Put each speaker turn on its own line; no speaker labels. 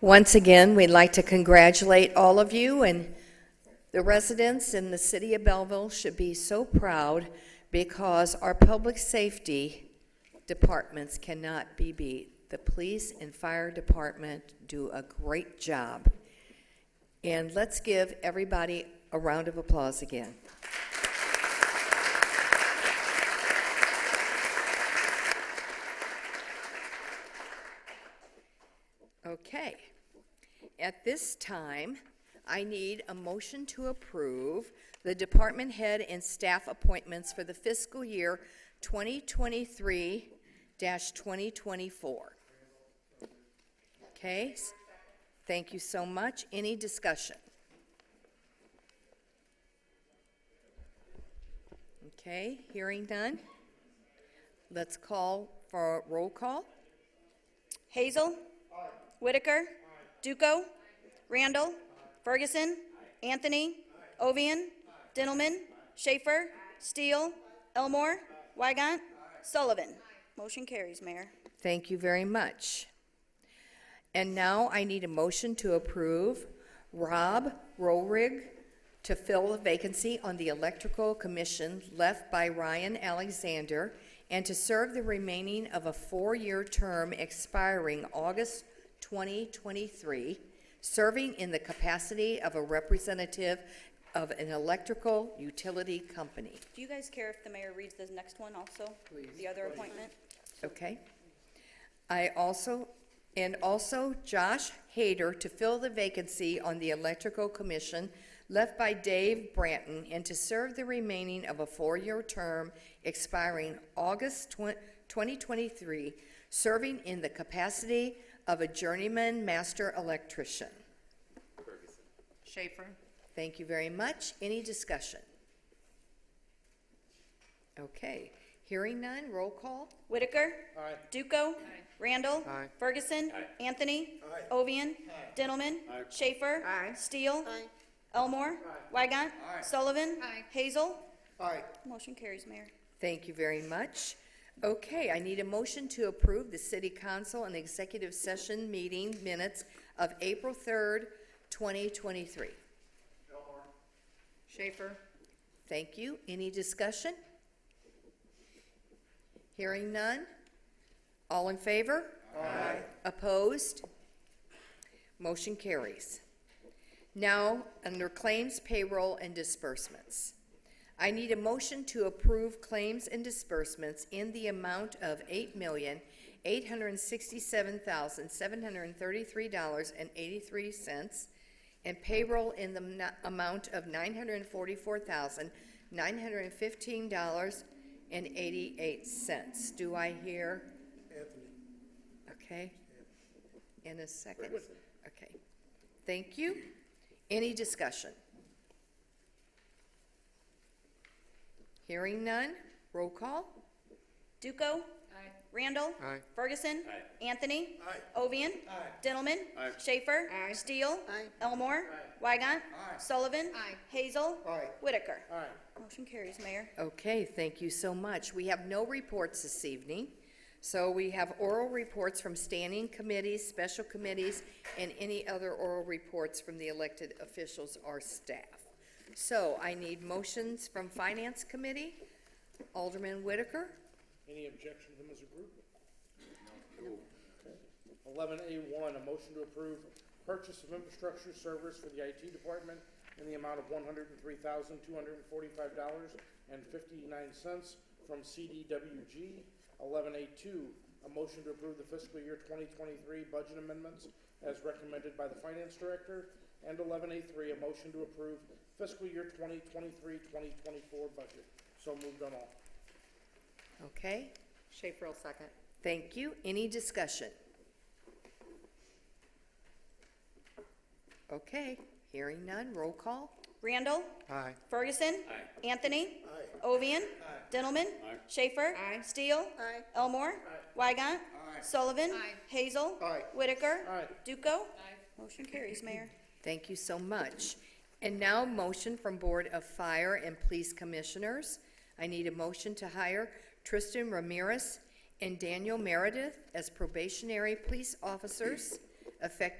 Once again, we'd like to congratulate all of you, and the residents in the city of Belleville should be so proud because our public safety departments cannot be beat. The police and fire department do a great job. And let's give everybody a round of applause again. Okay. At this time, I need a motion to approve the department head and staff appointments for the fiscal year 2023-2024. Okay? s- Thank you so much. Any discussion? Okay, hearing none. Let's call for a roll call.
Hazel. Whitaker. Duco. Randall. Ferguson. Anthony. Ovian. Dintelman. Schaefer. Steele. Elmore. Wygant. Sullivan. Motion carries, Mayor.
Thank you very much. And now I need a motion to approve Rob Rohrig to fill the vacancy on the Electrical Commission left by Ryan Alexander and to serve the remaining of a four-year term expiring August 2023, serving in the capacity of a representative of an electrical utility company.
Do you guys care if the mayor reads this next one also? The other appointment?
Okay. I also, and also Josh Hader to fill the vacancy on the Electrical Commission left by Dave Branton and to serve the remaining of a four-year term expiring August twen- 2023, serving in the capacity of a journeyman master electrician.
Schaefer.
Thank you very much. Any discussion? Okay, hearing none, roll call.
Whitaker. Duco. Randall. Ferguson. Anthony. Ovian. Dintelman. Schaefer. Steele. Elmore. Wygant. Sullivan. Hazel. Motion carries, Mayor.
Thank you very much. Okay, I need a motion to approve the city council and executive session meeting minutes of April 3rd, 2023.
Schaefer.
Thank you. Any discussion? Hearing none? All in favor? Aye. Opposed? Motion carries. Now, under claims, payroll, and disbursements. I need a motion to approve claims and disbursements in the amount of eight million, eight hundred and sixty-seven thousand, seven hundred and thirty-three dollars and eighty-three cents, and payroll in the n- amount of nine hundred and forty-four thousand, nine hundred and fifteen dollars and eighty-eight cents. Do I hear? Anthony. Okay. In a second. Okay. Thank you. Any discussion? Hearing none, roll call.
Duco. Randall. Ferguson. Anthony. Ovian. Dintelman. Schaefer. Steele. Elmore. Wygant. Sullivan. Hazel. Whitaker. Motion carries, Mayor.
Okay, thank you so much. We have no reports this evening, so we have oral reports from standing committees, special committees, and any other oral reports from the elected officials or staff. So I need motions from Finance Committee. Alderman Whitaker?
Any objection to them as a group? Eleven A one, a motion to approve purchase of infrastructure servers for the IT department in the amount of one hundred and three thousand, two hundred and forty-five dollars and fifty-nine cents from CDWG. Eleven A two, a motion to approve the fiscal year twenty twenty-three budget amendments as recommended by the finance director. And eleven A three, a motion to approve fiscal year 2023-2024 budget. So moved on all.
Okay,
Schaefer will second.
thank you. Any discussion? Okay, hearing none, roll call.
Randall. Ferguson. Anthony. Ovian. Dintelman. Schaefer. Steele. Elmore. Wygant. Sullivan. Hazel. Whitaker.
Aye.
Duco. Motion carries, Mayor.
Thank you so much. And now, motion from Board of Fire and Police Commissioners. I need a motion to hire Tristan Ramirez and Daniel Meredith as probationary police officers effective